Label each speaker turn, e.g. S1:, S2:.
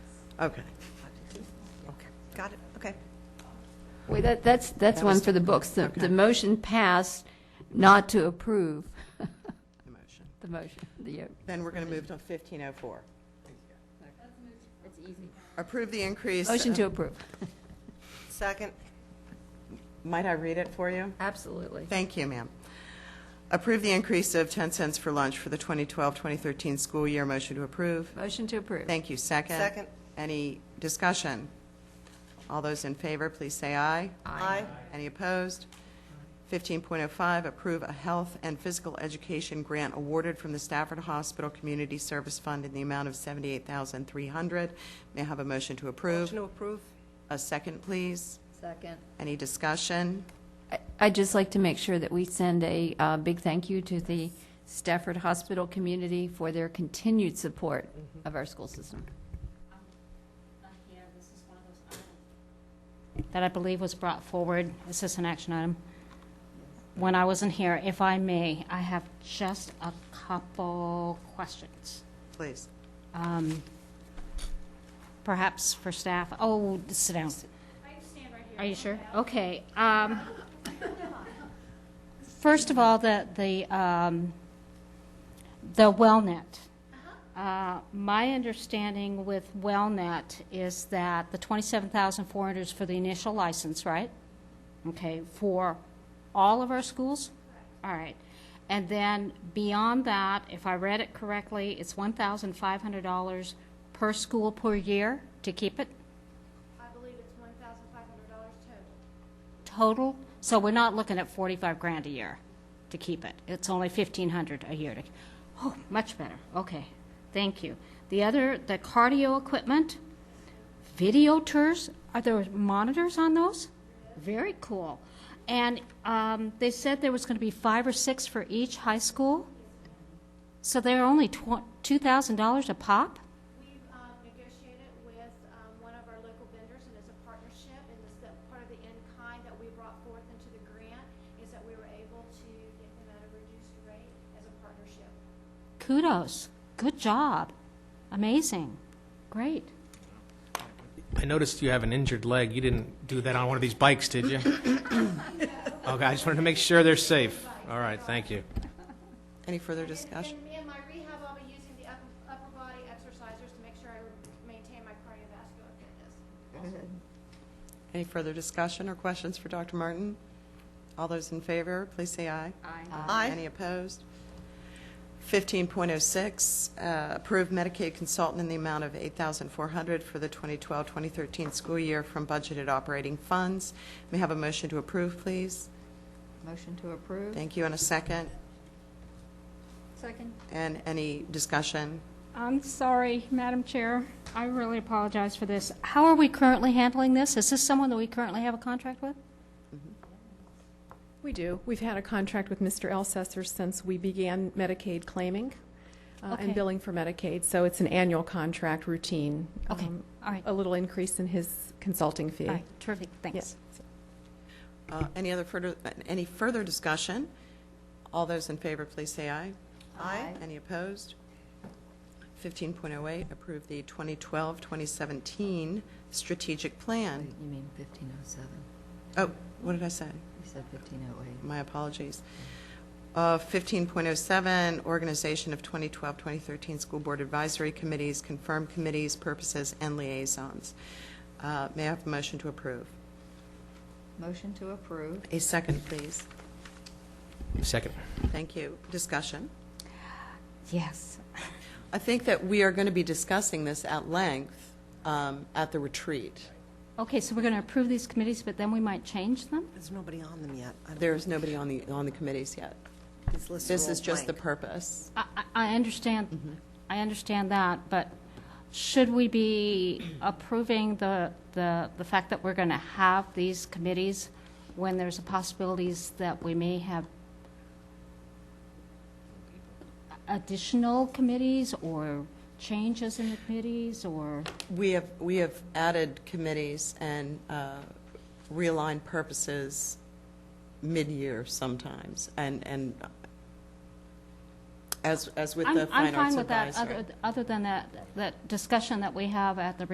S1: Okay.
S2: Okay, got it, okay.
S3: Wait, that, that's, that's one for the books. The, the motion passed not to approve
S1: The motion.
S3: the motion, the, uh,
S1: Then we're going to oh move to 1504. Approve the increase.
S3: motion to approve.
S1: Second. Might I read it for you?
S3: Absolutely.
S1: Thank you, ma'am. Approve the increase of 10 cents for lunch for the 2012-2013 school year. Motion to approve.
S3: Motion to approve.
S1: Thank you. Second.
S2: Second.
S1: Any discussion? All those in favor, please say aye.
S2: Aye.
S1: Any opposed? 15.05, approve a health and physical education grant awarded from the Stafford Hospital Community Service Fund in the amount of $78,300. May I have a motion to approve?
S2: Motion to approve?
S1: A second, please.
S3: Second.
S1: Any discussion?
S3: I- I'd just like to make sure that we send a uh, big thank you to the Stafford Hospital community for their continued support of our school system.
S4: Yeah, this is one of those items That I believe was brought forward, this is an action item. When I wasn't here, if I may, I have just a couple questions.
S1: Please.
S4: Um, Perhaps for staff, oh, sit down. Are you sure? Okay. um, First of all, the, the, um, the WellNet. Uh, My understanding with WellNet is that the 27,400 is for the initial license, right? Okay, for all of our schools? All right. And then beyond that, if I read it correctly, it's $1,500 per school per year to keep it?
S5: I believe it's one thousand five hundred dollars total.
S4: total, so we're not looking at 45 grand a year to keep it. It's only 1,500 a year to, oh, much better, okay, thank you. The other, the cardio equipment, video tours, are there monitors on those? Very cool. And um, they said there was going to be five or six for each high school? So they're only tw- $2,000 a pop?
S5: We've um, negotiated with um, one of our local vendors, and it's a partnership, and this, that part of the in-kind that we brought forth into the grant is that we were able to get them at a reduced rate as a partnership.
S4: Kudos, good job, amazing, great.
S6: I noticed you have an injured leg. You didn't do that on one of these bikes, did you? Okay, I just wanted to make sure they're safe. All right, thank you.
S1: Any further
S5: And-
S1: discussion?
S5: And me and my rehab, I'll be using the upper, upper body exercisers to make sure I maintain my cardiovascular fitness.
S1: Any further discussion or questions for Dr. Martin? All those in favor, please say aye.
S2: Aye.
S1: Any opposed? 15.06, uh, approve Medicaid consultant in the amount of $8,400 for the 2012-2013 school year from budgeted operating funds. May I have a motion to approve, please?
S3: Motion to approve.
S1: Thank you, and a second.
S3: Second.
S1: And any discussion?
S4: I'm sorry, Madam Chair. I really apologize for this. How are we currently handling this? Is this someone that we currently have a contract with?
S7: We do. We've had a contract with Mr. Elsesser since we began Medicaid claiming uh,
S4: Okay.
S7: and billing for Medicaid, so it's an annual contract routine.
S4: Okay,
S7: Um,
S4: all right.
S7: A little increase in his consulting fee.
S4: All right, terrific, thanks.
S1: Uh, Any other further, any further discussion? All those in favor, please say aye. Aye. Any opposed? 15.08, approve the 2012-2017 strategic plan.
S8: You mean 1507?
S1: Oh, what did I say?
S8: You said 1508.
S1: My apologies. Uh, 15.07, organization of 2012-2013 school board advisory committees, confirmed committees, purposes, and liaisons. Uh, May I have a motion to approve?
S8: Motion to approve.
S1: A second, please.
S6: Second.
S1: Thank you. Discussion?
S4: Yes.
S1: I think that we are going to be discussing this at length um, at the retreat.
S4: Okay, so we're going to approve these committees, but then we might change them?
S2: There's nobody on them yet. I don't-
S1: There's nobody on the, on the committees yet.
S2: These lists are
S1: This
S2: all
S1: is just the
S2: blank.
S1: purpose.
S4: I, I- I understand, I understand that, but should we be approving the, the, the fact that we're going to have these committees when there's a possibilities that we may have additional committees or changes in the committees or?
S1: We have, we have added committees and uh, realigned purposes mid-year sometimes, and, and as, as with
S4: I'm,
S1: the
S4: I'm
S1: Fine Arts
S4: fine with that,
S1: Advisory.
S4: other, other than that, that discussion that we have at the